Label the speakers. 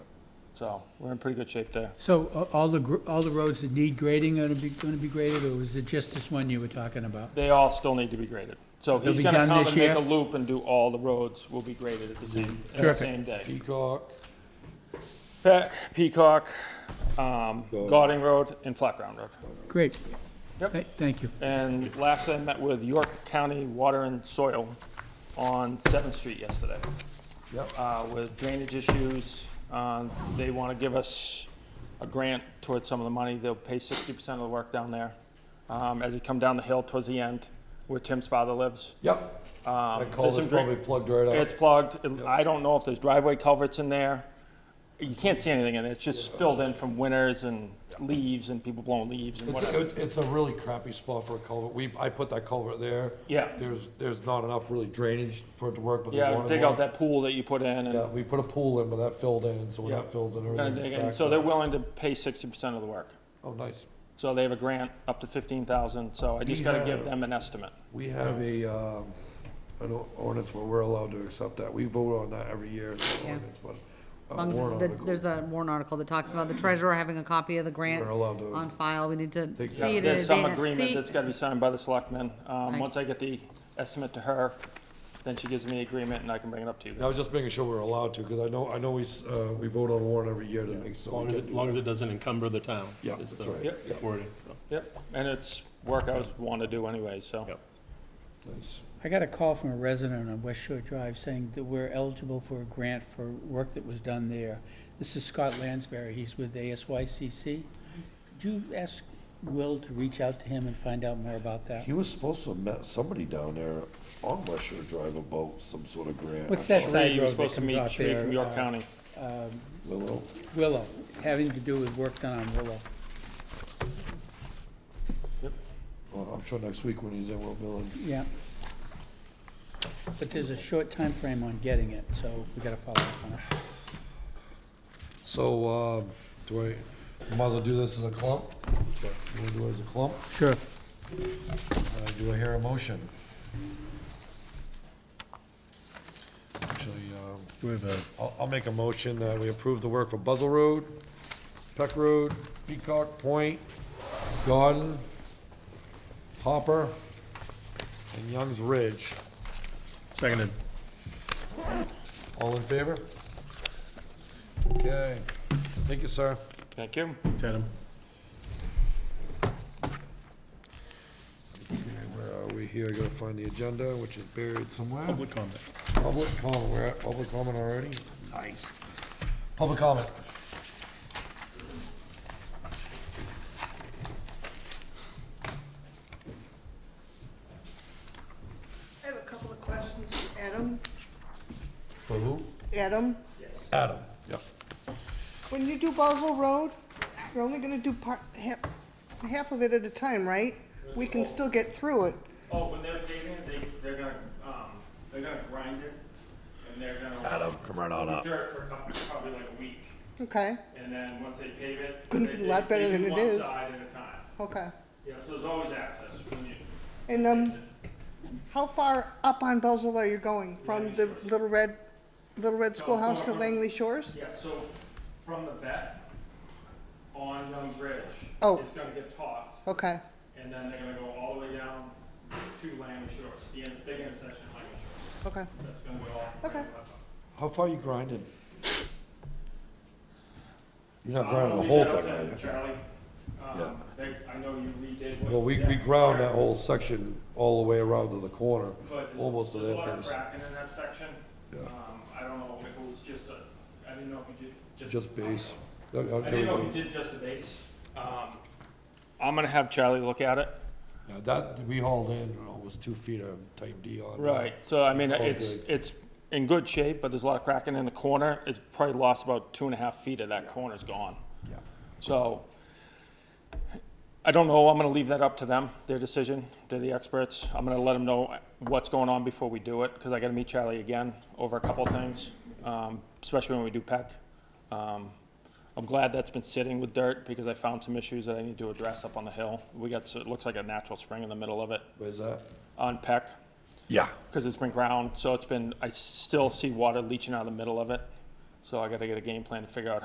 Speaker 1: So we're in pretty good shape there.
Speaker 2: So a- all the, gr- all the roads that need grading are gonna be, gonna be graded, or was it just this one you were talking about?
Speaker 1: They all still need to be graded. So
Speaker 2: They'll
Speaker 1: he's
Speaker 2: be
Speaker 1: gonna
Speaker 2: done
Speaker 1: come
Speaker 2: this
Speaker 1: and make
Speaker 2: year?
Speaker 1: a loop and do all the roads will be graded at the same, at the
Speaker 2: Terrific.
Speaker 1: same day.
Speaker 3: Peacock,
Speaker 1: Peck, Peacock, um, Gauding Road and Flat Ground Road.
Speaker 2: Great.
Speaker 1: Yep.
Speaker 2: Th- Thank you.
Speaker 1: And lastly, I met with York County Water and Soil on Seventh Street yesterday.
Speaker 3: Yep.
Speaker 1: Uh, with drainage issues, um, they wanna give us a grant towards some of the money, they'll pay sixty percent of the work down there. Um, as you come down the hill towards the end, where Tim's father lives.
Speaker 3: yep.
Speaker 1: Um,
Speaker 3: That
Speaker 1: there's some
Speaker 3: culvert's
Speaker 1: dra-
Speaker 3: probably plugged right up.
Speaker 1: It's plugged, It- I don't know if there's driveway culverts in there, you can't see anything in it, it's just filled in from winters and leaves and people blowing leaves and
Speaker 3: It's,
Speaker 1: whatever.
Speaker 3: it's- it's a really crappy spot for a culvert. We, I put that culvert there.
Speaker 1: Yeah.
Speaker 3: There's, there's not enough really drainage for it to work, but they
Speaker 1: Yeah,
Speaker 3: wanted
Speaker 1: dig
Speaker 3: one.
Speaker 1: out that pool that you put in and
Speaker 3: Yeah, we put a pool in, but that filled in, so when
Speaker 1: Yeah.
Speaker 3: that fills in,
Speaker 1: Gonna
Speaker 3: everything
Speaker 1: dig in.
Speaker 3: backs
Speaker 1: So
Speaker 3: up.
Speaker 1: they're willing to pay sixty percent of the work.
Speaker 3: Oh, nice.
Speaker 1: So they have a grant up to fifteen thousand, so I just
Speaker 3: We
Speaker 1: gotta
Speaker 3: have-
Speaker 1: give them an estimate.
Speaker 3: We have a, um, an o- ordinance where we're allowed to accept that. We vote on that every year, it's an
Speaker 4: Yeah.
Speaker 3: ordinance, but. a
Speaker 4: Long as
Speaker 3: warrant
Speaker 4: the-
Speaker 3: article,
Speaker 4: There's a warrant article that talks about the treasurer having a copy of the grant
Speaker 3: We're allowed to-
Speaker 4: on file. We need to
Speaker 3: Take
Speaker 4: see it in
Speaker 1: There's some
Speaker 4: advance.
Speaker 1: agreement
Speaker 4: See-
Speaker 1: that's gotta be signed by the selectmen. Um,
Speaker 4: Right.
Speaker 1: once I get the estimate to her, then she gives me the agreement and I can bring it up to you.
Speaker 3: I was just making sure we're allowed to, because I know, I know we, s- uh, we vote on warrant every year to make
Speaker 5: As
Speaker 3: so.
Speaker 5: long
Speaker 3: we
Speaker 5: as,
Speaker 3: can
Speaker 5: it-
Speaker 3: do
Speaker 5: as long as
Speaker 3: it.
Speaker 5: it doesn't encumber the town.
Speaker 3: Yeah,
Speaker 5: is
Speaker 3: that's
Speaker 5: the
Speaker 3: right.
Speaker 1: Yep.
Speaker 5: Wording, so.
Speaker 1: Yep, and it's work I was wanting to do anyway, so.
Speaker 5: Yep.
Speaker 3: Nice.
Speaker 2: I got a call from a resident on West Shore Drive saying that we're eligible for a grant for work that was done there. This is Scott Lansbury, he's with ASYCC. Could you ask Will to reach out to him and find out more about that?
Speaker 6: He was supposed to have met somebody down there on West Shore Drive about some sort of grant.
Speaker 2: What's that
Speaker 1: Sheree,
Speaker 2: side
Speaker 1: you were
Speaker 2: road that
Speaker 1: supposed to
Speaker 2: comes
Speaker 1: meet
Speaker 2: off
Speaker 1: Sheree
Speaker 2: there?
Speaker 1: from York
Speaker 2: uh,
Speaker 1: County.
Speaker 6: Willow,
Speaker 2: Willow, having to do with work done on Willow.
Speaker 3: Well, I'm sure next week when he's in, we'll bill him.
Speaker 2: Yeah. But there's a short time frame on getting it, so we gotta follow up on it.
Speaker 3: So, um, do I, we might as well do this as a clump? You wanna do it as a clump?
Speaker 2: Sure.
Speaker 3: Uh, do I hear a motion? Actually, um, I'll, I'll make a motion that we approve the work for Buzzell Road, Peck Road, Peacock Point, Garden, Hopper, and Young's Ridge.
Speaker 5: Seconded.
Speaker 3: All in favor? Okay. Thank you, sir.
Speaker 1: Thank you.
Speaker 5: Tatum.
Speaker 3: Where are uh, we here? I gotta find the agenda, which is buried somewhere.
Speaker 5: Public comment.
Speaker 3: Public comment, we're at public comment already? Nice. Public comment.
Speaker 7: I have a couple of questions for Adam.
Speaker 3: For who?
Speaker 7: Adam,
Speaker 3: Adam. Yep.
Speaker 7: when you do Basel Road, you're only gonna do part, half, half of it at a time, right? We can still get through it.
Speaker 1: Oh, when they're digging, they, they're gonna, um, they're gonna grind it and they're gonna.
Speaker 6: Adam, come right on up.
Speaker 1: Dirt for a couple, probably like a week.
Speaker 7: Okay,
Speaker 1: And then once they pave it.
Speaker 7: Couldn't
Speaker 1: they-
Speaker 7: be a lot
Speaker 1: they-
Speaker 7: better
Speaker 1: they do
Speaker 7: than it
Speaker 1: one
Speaker 7: is.
Speaker 1: Side at a time.
Speaker 7: okay.
Speaker 1: Yeah, so there's always access when you,
Speaker 7: And, um, how far up on Basel are you going? From the Little Red, Little Red Schoolhouse to Langley Shores?
Speaker 1: yeah, so from the vet on Young's Ridge.
Speaker 7: Oh.
Speaker 1: It's gonna get topped,
Speaker 7: Okay,
Speaker 1: and then they're gonna go all the way down to Langley Shores, the in- big intersection of Langley Shores.
Speaker 7: okay.
Speaker 1: That's gonna go all.
Speaker 7: Okay.
Speaker 3: How far you grinding? You're not
Speaker 1: I don't know
Speaker 3: grinding the
Speaker 1: if
Speaker 3: whole
Speaker 1: you got
Speaker 3: thing,
Speaker 1: that,
Speaker 3: are you?
Speaker 1: Charlie,
Speaker 6: Yeah.
Speaker 1: um, they, I know you redid what.
Speaker 3: Well, we,
Speaker 1: yeah,
Speaker 3: we ground that whole section all the way around to the corner,
Speaker 1: But there's,
Speaker 3: almost to
Speaker 1: there's a
Speaker 3: that
Speaker 1: lot of
Speaker 3: place.
Speaker 1: cracking in that section.
Speaker 3: Yeah.
Speaker 1: Um, I don't know if it was just a, I didn't know if you did just.
Speaker 3: Just base. Uh, uh,
Speaker 1: I
Speaker 3: there we
Speaker 1: didn't know if
Speaker 3: go.
Speaker 1: you did just the base. Um, I'm gonna have Charlie look at it.
Speaker 3: Yeah, That, we hauled in almost two feet of type D on. that.
Speaker 1: Right, so I mean,
Speaker 3: It's all
Speaker 1: it's,
Speaker 3: good.
Speaker 1: it's in good shape, but there's a lot of cracking in the corner. It's probably lost about two and a half feet of that corner's gone.
Speaker 3: Yeah.
Speaker 1: So I don't know, I'm gonna leave that up to them, their decision, they're the experts. I'm gonna let them know what's going on before we do it, because I gotta meet Charlie again over a couple of things, um, especially when we do PEC. Um, I'm glad that's been sitting with dirt, because I found some issues that I need to address up on the hill. We got, so it looks like a natural spring in the middle of it
Speaker 3: Where's that?
Speaker 1: on PEC,
Speaker 6: Yeah.
Speaker 1: because it's been ground, so it's been, I still see water leaching out of the middle of it. So I gotta get a game plan to figure out